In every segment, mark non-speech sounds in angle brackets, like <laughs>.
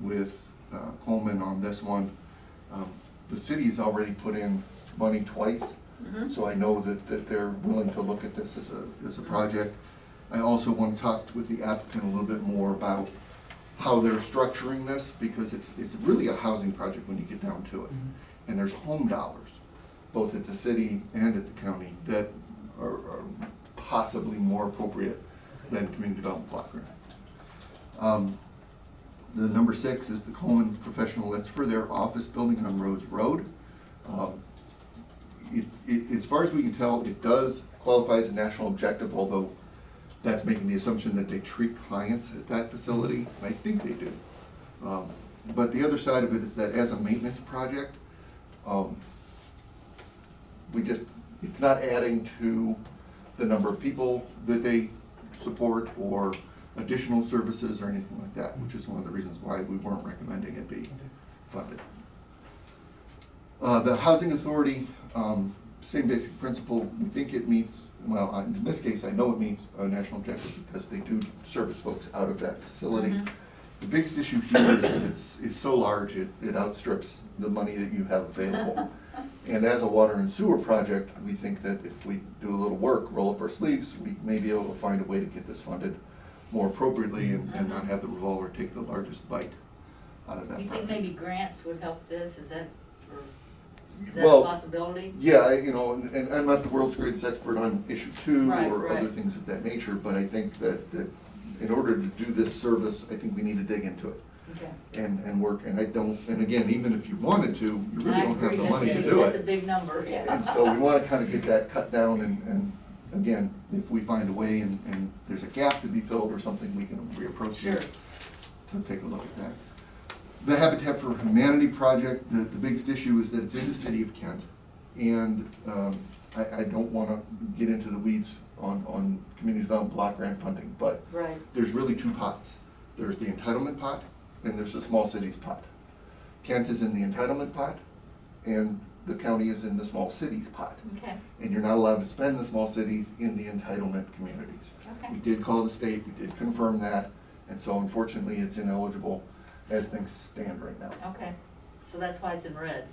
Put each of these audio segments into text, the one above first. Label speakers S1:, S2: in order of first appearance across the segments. S1: with uh, Coleman on this one. Um, The city's already put in money twice, so I know that, that they're willing to look at this as a, as a project. I also want to talk with the applicant a little bit more about how they're structuring this, because it's, it's really a housing project when you get down to it. And there's home dollars, both at the city and at the county, that are are possibly more appropriate than community development block grant. Um, The number six is the Coleman Professional, that's for their office building on Rhodes Road. Um, It, it, as far as we can tell, it does qualify as a national objective, although that's making the assumption that they treat clients at that facility, and I think they do. Um, But the other side of it is that as a maintenance project, um, we just, it's not adding to the number of people that they support or additional services or anything like that, which is one of the reasons why we weren't recommending it be funded. Uh, the housing authority, um, same basic principle, we think it meets, well, I- in this case, I know it meets a national objective because they do service folks out of that facility.
S2: Mhm.
S1: The biggest issue here is that it's, it's so large, it, it outstrips the money that you have
S2: <laughs>
S1: available. And as a water and sewer project, we think that if we do a little work, roll up our sleeves, we may be able to find a way to get this funded more appropriately and, and not have the revolver take the largest bite out of that.
S2: Mm-hmm. You think
S1: project.
S2: maybe grants would help this, is that, or is that a
S1: Well,
S2: possibility?
S1: Yeah, I- you know, and, and I'm not the world's greatest expert on issue two
S2: Right,
S1: or other
S2: right.
S1: things of that nature, but I think that, that in order to do this service, I think we need to dig into it
S2: Okay.
S1: and, and work, and I don't, and again, even if you wanted to, you really
S2: I
S1: don't have
S2: agree,
S1: the
S2: that's a
S1: money to
S2: big-
S1: do
S2: That's a
S1: it.
S2: big number,
S1: And
S2: yeah.
S1: so we wanna kinda get that cut down and, and again, if we find a way and, and there's a gap to be filled or something, we can reapproach
S2: <laughs> Sure.
S1: it to take a look at that. The Habitat for Humanity project, the, the biggest issue is that it's in the city of Kent. And um, I, I don't want to get into the weeds on, on community development block grant funding, but
S2: Right,
S1: there's really two pots. There's the entitlement pot and there's the small cities pot. Kent is in the entitlement pot and the county is in the small cities pot.
S2: okay,
S1: And you're not allowed to spend the small cities in the entitlement communities. We
S2: okay,
S1: did call the state, we did confirm that, and so unfortunately, it's ineligible as things stand right now.
S2: okay. So that's why it's in
S3: <laughs>
S2: red.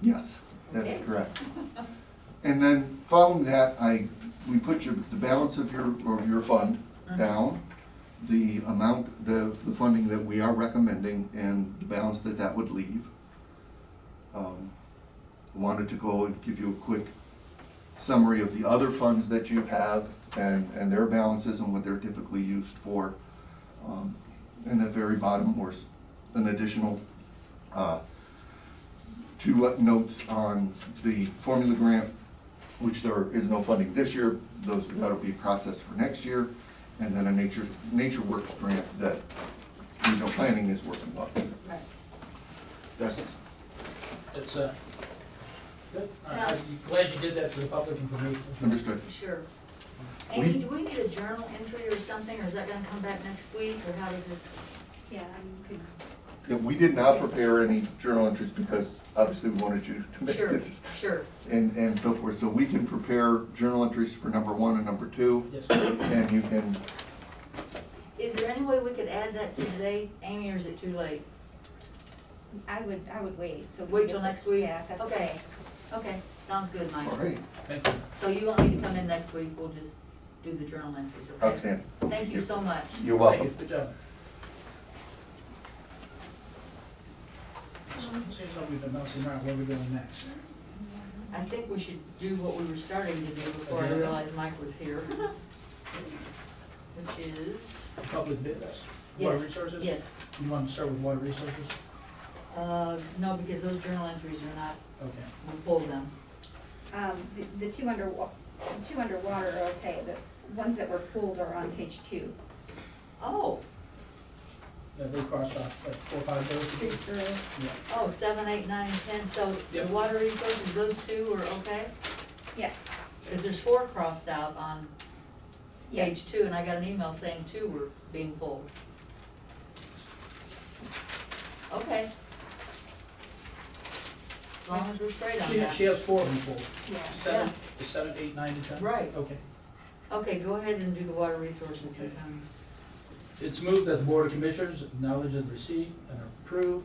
S1: Yes, that is
S2: Okay.
S1: correct. And then following that, I, we put your, the balance of your, of your fund
S2: Mhm.
S1: down, the amount, the, the funding that we are recommending and the balance that that would leave. Um, Wanted to go and give you a quick summary of the other funds that you have and, and their balances and what they're typically used for. Um, And the very bottom was an additional, uh, two uh, notes on the formula grant, which there is no funding this year. Those, that'll be processed for next year. And then a nature, nature works grant that regional planning is working on.
S2: Right.
S1: That's,
S4: It's, uh, good. I-
S2: Yeah.
S4: I'm glad you did that for the public and for me.
S1: understood.
S2: Sure.
S1: We-
S2: Amy, do we need a journal entry or something, or is that gonna come back next week, or how does this?
S3: Yeah, I mean,
S1: Yeah, we did not prepare any journal entries because obviously we wanted you to make <laughs>
S2: Sure,
S1: this
S2: sure,
S1: and, and so forth. So we can prepare journal entries for number one and number two.
S4: Yes.
S1: And you can,
S2: is there any way we could add that to today, Amy, or is it too late?
S3: I would, I would wait, so. we
S2: Wait
S3: get
S2: till
S3: the-
S2: next week?
S3: Yeah, if that's
S2: Okay.
S3: okay.
S2: Okay, sounds good, Mike.
S1: all right,
S4: Thank you.
S2: So you won't need to come in next week, we'll just do the journal entries, okay?
S1: outstanding.
S2: Thank you so much.
S1: You're
S4: Thank you.
S1: welcome.
S4: Good job.
S2: Um,
S4: Seems like we've been bouncing around where we're going next.
S2: I think we should do what we were starting to do before I
S4: Yeah.
S2: realized Mike was here. Which is,
S4: Public business, water
S2: yes,
S4: resources?
S2: yes.
S4: You want to start with water resources?
S2: Uh, no, because those journal entries are not,
S4: Okay.
S2: we'll pull them.
S3: Um, the, the two under, the two underwater are okay, the ones that were pulled are on page two.
S2: Oh,
S4: Yeah, they crossed off like four, or five
S3: Three
S4: days.
S3: through,
S4: Yeah.
S2: oh, seven, eight, nine, ten, so the
S4: Yep.
S2: water resources, those two are okay?
S3: yeah,
S2: Because there's four crossed out on
S3: yeah,
S2: page two, and I got an email saying two were being pulled. Okay. As long as we're straight on
S4: She,
S2: that.
S4: she has four of them pulled.
S3: yeah.
S4: Seven, is seven, eight, nine, and ten?
S2: Right.
S4: Okay.
S2: Okay, go ahead and do the water resources then, Tony.
S4: It's moved that the Board of Commissioners acknowledge and receive and approve